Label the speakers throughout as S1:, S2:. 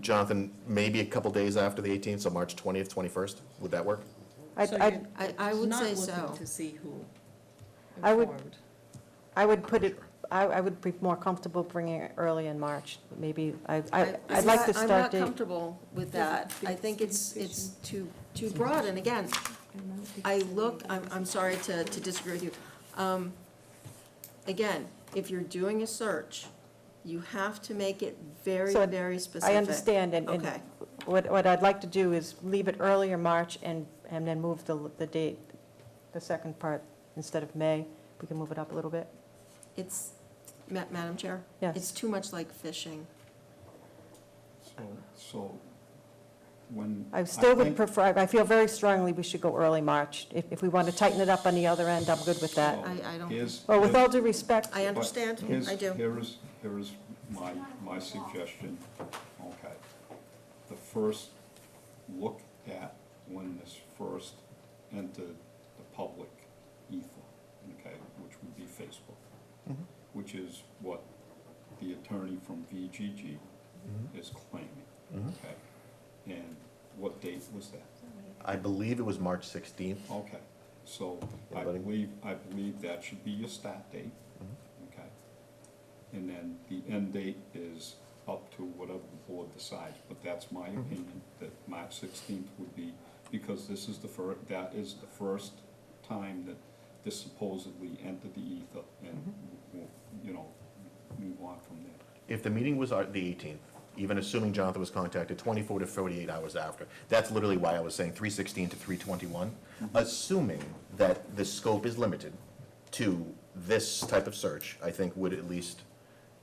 S1: Jonathan, maybe a couple days after the 18th, so March 20th, 21st, would that work?
S2: I,
S3: So
S2: I,
S3: you're
S4: I- I would say
S3: Not
S4: so.
S3: looking to see who
S2: I would-
S3: informed.
S2: I would put it, I, I would be more comfortable bringing it early in March, maybe, I, I, I'd like to
S4: I'm not
S2: start date.
S4: comfortable with
S3: Yeah,
S4: that. I
S3: it's
S4: think it's, it's
S3: communication.
S4: too, too broad, and again, I look, I'm, I'm sorry to, to disagree with you. Um, Again, if you're doing a search, you have to make it very,
S2: So,
S4: very specific.
S2: I understand, and, and
S4: Okay,
S2: what, what I'd like to do is leave it earlier March and, and then move the, the date, the second part, instead of May, we can move it up a little bit.
S4: it's, Ma- Madam Chair?
S2: Yes.
S4: It's too much like fishing.
S5: So- So, when.
S2: I still would
S5: think-
S2: prefer, I feel very strongly we should go early March. If, if we want to tighten it up on the other end, I'm good with that.
S5: so
S4: I- I don't-
S5: Oh, here's-
S2: Well, with
S5: here's-
S2: all due respect,
S4: I
S5: but
S4: understand,
S5: here's-
S4: I do.
S5: Here is, here is my, my suggestion, okay. The first, look at when this first entered the public ether, okay, which would be Facebook, which is what the attorney from VGG is claiming,
S1: Mm-hmm.
S5: okay? And what date was that?
S1: I believe it was March 16th.
S5: Okay, so
S1: Yeah,
S5: I
S1: buddy.
S5: believe, I believe that should be your start date, okay? And then the end date is up to whatever the board decides, but that's my opinion, that March sixteenth would be, because this is the fir, that is the first time that this supposedly entered the ether, and, we'll- you know, move on from there.
S1: If the meeting was our- the 18th, even assuming Jonathan was contacted 24 to 48 hours after, that's literally why I was saying 316 to 321, assuming that the scope is limited to this type of search, I think would at least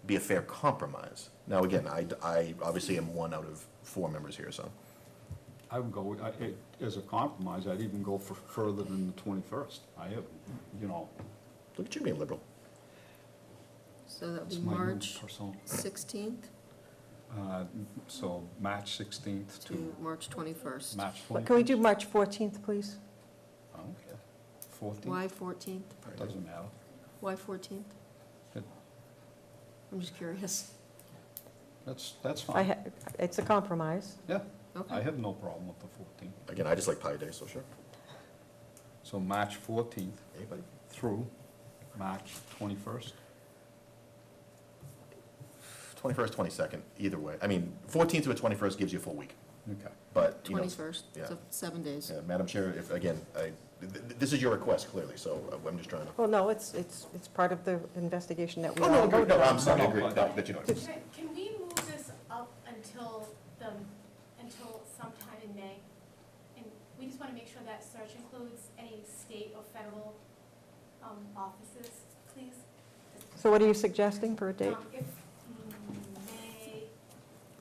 S1: be a fair compromise. Now, again, I, I obviously am one out of four members here, so.
S5: I would go, I, it- as a compromise, I'd even go for further than the twenty-first, I have, you know,
S1: Look at you being liberal.
S4: So that would
S5: it's
S4: be
S5: my new
S4: March
S5: personal.
S4: 16th
S5: Uh, So March 16th
S4: to
S5: to
S4: March 21st.
S5: March
S2: but
S5: 21st.
S2: can we do March 14th, please?
S5: I don't care. 14th,
S4: Why 14th?
S5: doesn't matter.
S4: Why 14th?
S5: It-
S4: I'm just curious.
S5: That's, that's
S2: I,
S5: fine.
S2: ha- it's a compromise.
S5: Yeah,
S4: Okay.
S5: I have no problem with the 14th.
S1: Again, I just like Pi Day, so sure.
S5: So March 14th
S1: Anybody?
S5: through March 21st.
S1: 21st, 22nd, either way. I mean, 14th to a 21st gives you a full week,
S5: Okay.
S1: but, you know.
S4: Twenty-first,
S1: yeah.
S4: so seven days.
S1: Yeah, Madam Chair, if, again, I, th- th- this is your request clearly, so uh, I'm just trying to.
S2: Well, no, it's, it's, it's part of the investigation that we
S1: Oh, no,
S2: all
S1: agree,
S2: voted
S1: no, I'm
S2: on.
S1: sorry, I agree, that that you know.
S2: Just-
S6: Can can we move this up until the, until sometime in May? And we just want to make sure that search includes any state or federal um, offices, please.
S2: So what are you suggesting for a date?
S6: Um, If May,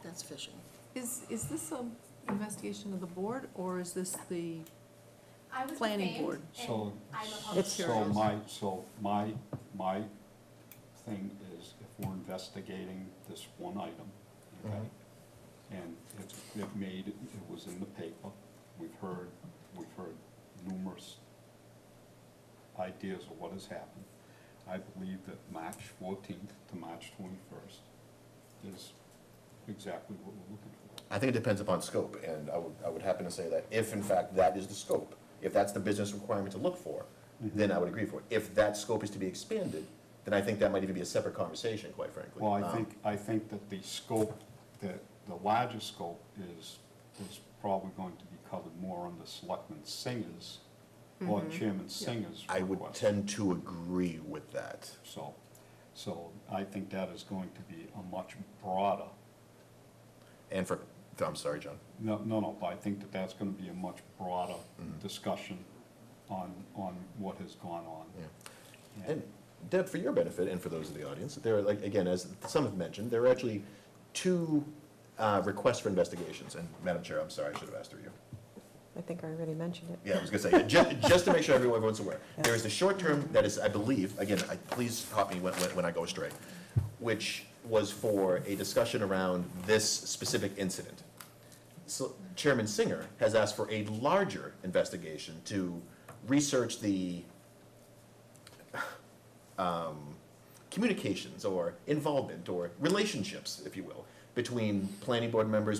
S4: That's fishing.
S3: Is, is this an investigation of the board, or is this the,
S6: I was
S3: Planning
S6: defamed,
S3: board.
S6: and
S5: So,
S6: I'm a public
S2: It's-
S5: so
S6: servant.
S5: my, so my, my thing is if we're investigating this one item, okay? And it's, it made, it was in the paper, we've heard, we've heard numerous ideas of what has happened. I believe that March fourteenth to March twenty-first is exactly what we're looking for.
S1: I think it depends upon scope, and I would, I would happen to say that if in fact that is the scope, if that's the business requirement to look for, Mm-hmm. then I would agree for it. If that scope is to be expanded, then I think that might even be a separate conversation, quite frankly.
S5: Well, I
S1: Um,
S5: think, I think that the scope, that the larger scope is, is probably going to be covered more under Selectman Singer's or Chairman Singer's
S1: I would
S5: request.
S1: tend to agree with that.
S5: So, so I think that is going to be a much broader,
S1: And for, I'm sorry, John.
S5: no, no, no, but I think that that's gonna be a much broader
S1: Mm-hmm.
S5: discussion on, on what has gone on.
S1: Yeah.
S5: Yeah.
S1: And Deb, for your benefit and for those of the audience, there are, like, again, as some have mentioned, there are actually two uh, requests for investigations. And Madam Chair, I'm sorry, I should have asked through you.
S2: I think I already mentioned it.
S1: Yeah, I was gonna say, ju- just to make sure everyone, everyone's aware. There is the short term that is, I believe, again, I, please stop me when, when when I go astray, which was for a discussion around this specific incident. So Chairman Singer has asked for a larger investigation to research the um, communications or involvement or relationships, if you will, between planning board members,